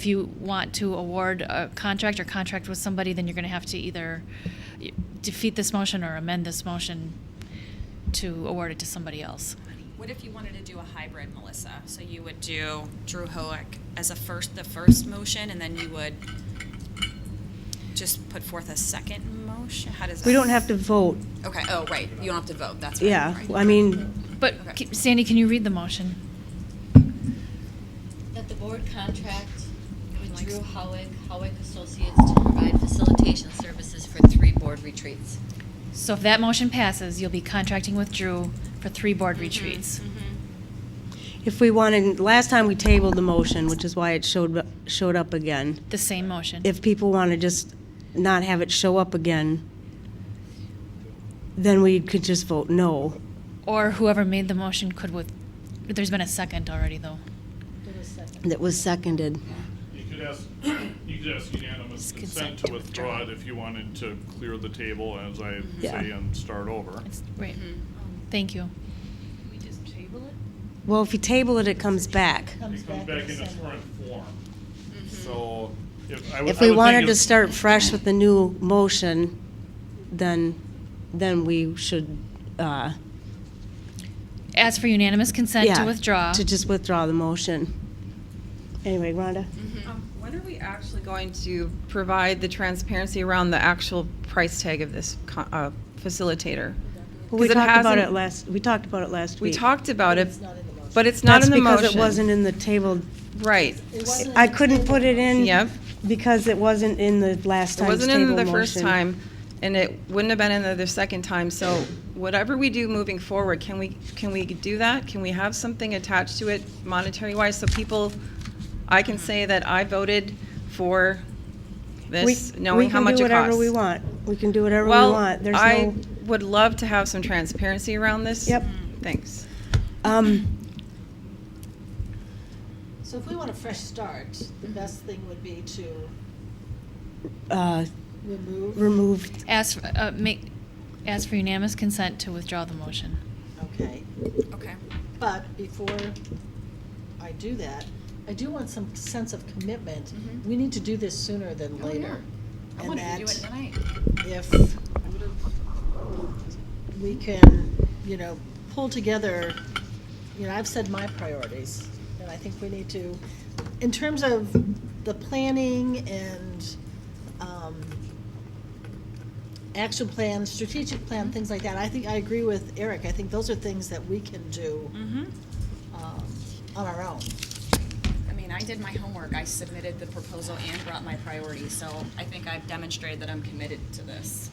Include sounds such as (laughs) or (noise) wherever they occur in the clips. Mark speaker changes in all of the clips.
Speaker 1: If you want to award a contract or contract with somebody, then you're going to have to either defeat this motion or amend this motion to award it to somebody else.
Speaker 2: What if you wanted to do a hybrid, Melissa? So you would do Drew Hoek as a first, the first motion, and then you would just put forth a second motion? How does that?
Speaker 3: We don't have to vote,
Speaker 2: Okay, oh, right, you don't have to vote, that's right.
Speaker 3: yeah.
Speaker 2: right.
Speaker 3: I mean,
Speaker 1: But
Speaker 2: Okay.
Speaker 1: c- Sandy, can you read the motion?
Speaker 4: That the board contract with Drew Howick, Howick Associates to provide facilitation services for three board retreats.
Speaker 1: So if that motion passes, you'll be contracting with Drew for three board retreats.
Speaker 3: if we wanted, last time we tabled the motion, which is why it showed, showed up again.
Speaker 1: The same motion.
Speaker 3: If people want to just not have it show up again, then we could just vote no.
Speaker 1: Or whoever made the motion could with, there's been a second already, though.
Speaker 3: That was seconded.
Speaker 5: You could ask, (clears throat) you could ask unanimous
Speaker 1: It's
Speaker 5: consent
Speaker 1: consent
Speaker 5: to
Speaker 1: to
Speaker 5: withdraw it
Speaker 1: withdraw.
Speaker 5: if you wanted to clear the table, as I
Speaker 3: Yeah.
Speaker 5: say, and start over.
Speaker 1: It's- Right. Thank you.
Speaker 6: We just table it?
Speaker 3: Well, if you table it, it comes back.
Speaker 6: Comes
Speaker 5: It comes
Speaker 6: back
Speaker 5: back
Speaker 6: in
Speaker 5: in
Speaker 6: the
Speaker 5: its
Speaker 6: same
Speaker 5: current
Speaker 6: way.
Speaker 5: form. So if I would.
Speaker 3: If
Speaker 5: I
Speaker 3: we
Speaker 5: would
Speaker 3: wanted
Speaker 5: think
Speaker 3: to
Speaker 5: if-
Speaker 3: start fresh with the new motion, then, then we should, uh,
Speaker 1: Ask for unanimous consent to
Speaker 3: yeah,
Speaker 1: withdraw.
Speaker 3: To just withdraw the motion. Anyway, Rhonda?
Speaker 7: Um, When are we actually going to provide the transparency around the actual price tag of this co- uh, facilitator?
Speaker 3: Well, we
Speaker 7: 'Cause it
Speaker 3: talked about
Speaker 7: hasn't-
Speaker 3: it last, we talked about it last
Speaker 7: We
Speaker 3: week.
Speaker 7: talked about it, but it's not
Speaker 3: That's
Speaker 7: in the motion.
Speaker 3: because it wasn't in the table.
Speaker 7: Right.
Speaker 3: I couldn't put it in.
Speaker 7: Yep.
Speaker 3: Because it wasn't in the last
Speaker 7: It
Speaker 3: time's
Speaker 7: wasn't
Speaker 3: table motion.
Speaker 7: in the first time, and it wouldn't have been in the the second time. So whatever we do moving forward, can we, can we do that? Can we have something attached to it monetary-wise so people, I can say that I voted for
Speaker 3: We-
Speaker 7: this, knowing how much
Speaker 3: We
Speaker 7: it costs?
Speaker 3: can do whatever we want. We can do whatever we
Speaker 7: Well,
Speaker 3: want. There's
Speaker 7: I
Speaker 3: no,
Speaker 7: would love to have some transparency around this.
Speaker 3: Yep.
Speaker 7: Thanks.
Speaker 3: um,
Speaker 6: So if we want a fresh start, the best thing would be to
Speaker 3: uh,
Speaker 6: remove.
Speaker 3: remove,
Speaker 1: Ask, for- uh, make, ask for unanimous consent to withdraw the motion.
Speaker 6: Okay,
Speaker 2: Okay.
Speaker 6: but before I do that, I do want some sense of commitment. We need to do this sooner than later.
Speaker 2: Mm-hmm. Oh, I
Speaker 6: And
Speaker 2: wanted to do
Speaker 6: that-
Speaker 2: it tonight.
Speaker 6: if we can, you know, pull together, you know, I've said my priorities, and I think we need to, in terms of the planning and um, action plan, strategic plan, things like that, I think, I agree with Eric, I think those are things that we can do
Speaker 2: Mm-hmm.
Speaker 6: um, on our own.
Speaker 2: I mean, I did my homework, I submitted the proposal and brought my priorities, so I think I've demonstrated that I'm committed to this.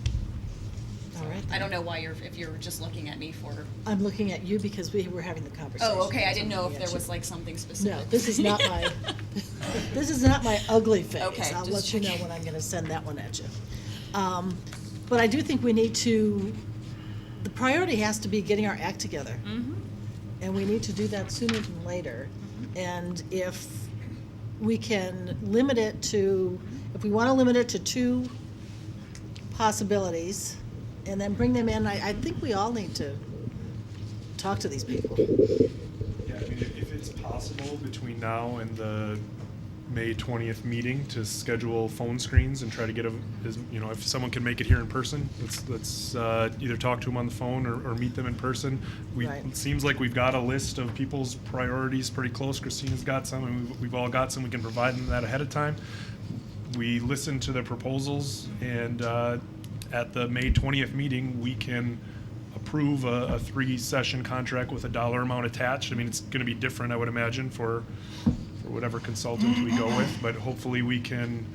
Speaker 6: All right?
Speaker 2: I don't know why you're, if you're just looking at me for,
Speaker 6: I'm looking at you because we were having the conversation.
Speaker 2: oh, okay, I didn't know if
Speaker 6: Yeah,
Speaker 2: there
Speaker 6: she-
Speaker 2: was like something specific. (laughs)
Speaker 6: No, this is not my, (laughs) this is not my ugly face.
Speaker 2: Okay,
Speaker 6: I'll
Speaker 2: just
Speaker 6: let you know
Speaker 2: checking.
Speaker 6: when I'm gonna send that one at you. Um, But I do think we need to, the priority has to be getting our act together.
Speaker 2: Mm-hmm.
Speaker 6: And we need to do that sooner than later.
Speaker 2: Mm-hmm.
Speaker 6: And if we can limit it to, if we wanna limit it to two possibilities and then bring them in, I, I think we all need to talk to these people.
Speaker 8: Yeah, I mean, if if it's possible between now and the May twentieth meeting to schedule phone screens and try to get a, is, you know, if someone can make it here in person, let's, let's, uh, either talk to them on the phone or, or meet them in person. We,
Speaker 6: Right.
Speaker 8: it seems like we've got a list of people's priorities pretty close. Christina's got some, and we've, we've all got some. We can provide them that ahead of time. We listen to the proposals and, uh, at the May twentieth meeting, we can approve a, a three-session contract with a dollar amount attached. I mean, it's gonna be different, I would imagine, for, for whatever consultant we go with, but hopefully we can,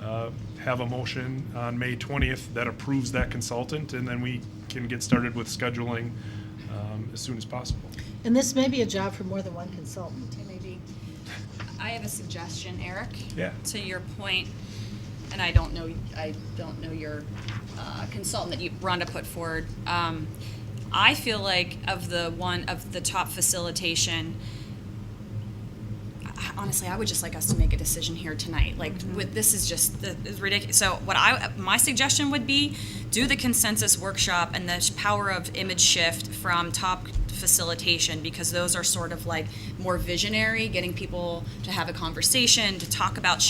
Speaker 8: uh, have a motion on May twentieth that approves that consultant, and then we can get started with scheduling, um, as soon as possible.
Speaker 6: And this may be a job for more than one consultant.
Speaker 2: Maybe. I have a suggestion, Eric.
Speaker 8: Yeah.
Speaker 2: To your point, and I don't know, I don't know your uh, consultant that you, Rhonda put forward. Um, I feel like of the one, of the top facilitation, I- honestly, I would just like us to make a decision here tonight. Like, with, this is just the, is ridiculous. So, what I my suggestion would be, do the consensus workshop and the power of image shift from top facilitation because those are sort of like more visionary, getting people to have a conversation, to talk about